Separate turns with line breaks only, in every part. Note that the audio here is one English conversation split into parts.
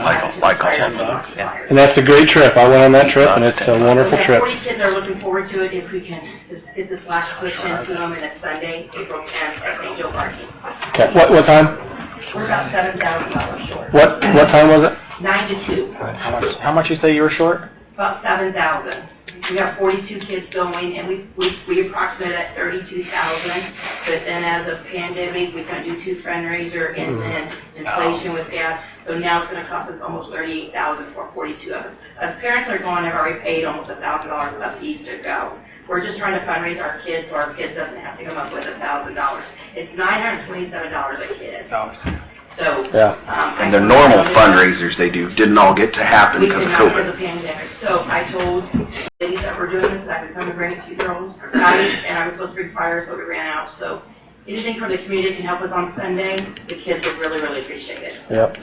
Michael, Michael, yeah.
And that's a great trip. I went on that trip and it's a
We
wonderful
uh, have
trip.
40 kids that are looking forward to it if we can, is- is this last push in to them, and it's Sunday, April 10th, at St. Joe Park.
Okay, what, what time?
We're about $7,000 short,
What, what time was it?
9 to 2,
How much, how much you say you were short?
about 7,000. We have 42 kids going, and we, we we approximate at 32,000, but then as of pandemic, we kind of do two fundraiser, and then inflation with gas, so now it's going to cost us almost 38,000 for 42 of us. Us parents are going, have already paid almost $1,000 left each to go. We're just trying to fundraise our kids, so our kids doesn't have to come up with $1,000. It's $927 a kid, so.
Yeah.
um,
And their normal
fundraiser.
fundraisers they do didn't all get to happen
We
because of
could not for
COVID.
the pandemic. So I told ladies that were doing this, I could come and bring two girls, guys, and I was supposed to bring fire, so we ran out. So anything from the community that can help us on Sunday, the kids would really, really appreciate it.
Yep.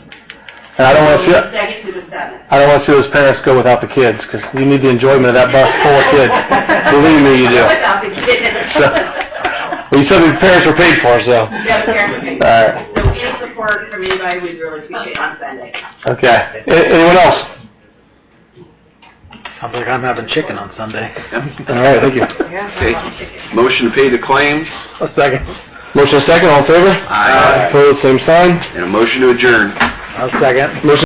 And I don't wanna
From
see,
the Second to the seventh.
I don't wanna see those parents go without the kids, 'cause you need the enjoyment of that bus full of kids. Oh, Believe me, you do.
Without the kids.
Well, you said the parents were paid for, so.
Yeah, the parents would be-
Alright.
So any support from anybody, we'd really appreciate on Sunday.
Okay. A- Anyone else?
Sounds like I'm having chicken on Sunday.
All right, thank you.
Okay. Motion to pay the claims
A second.
Motion second, all in favor?
Aye.
Opposed, same sign.
and a motion to adjourn.
A second.
Motion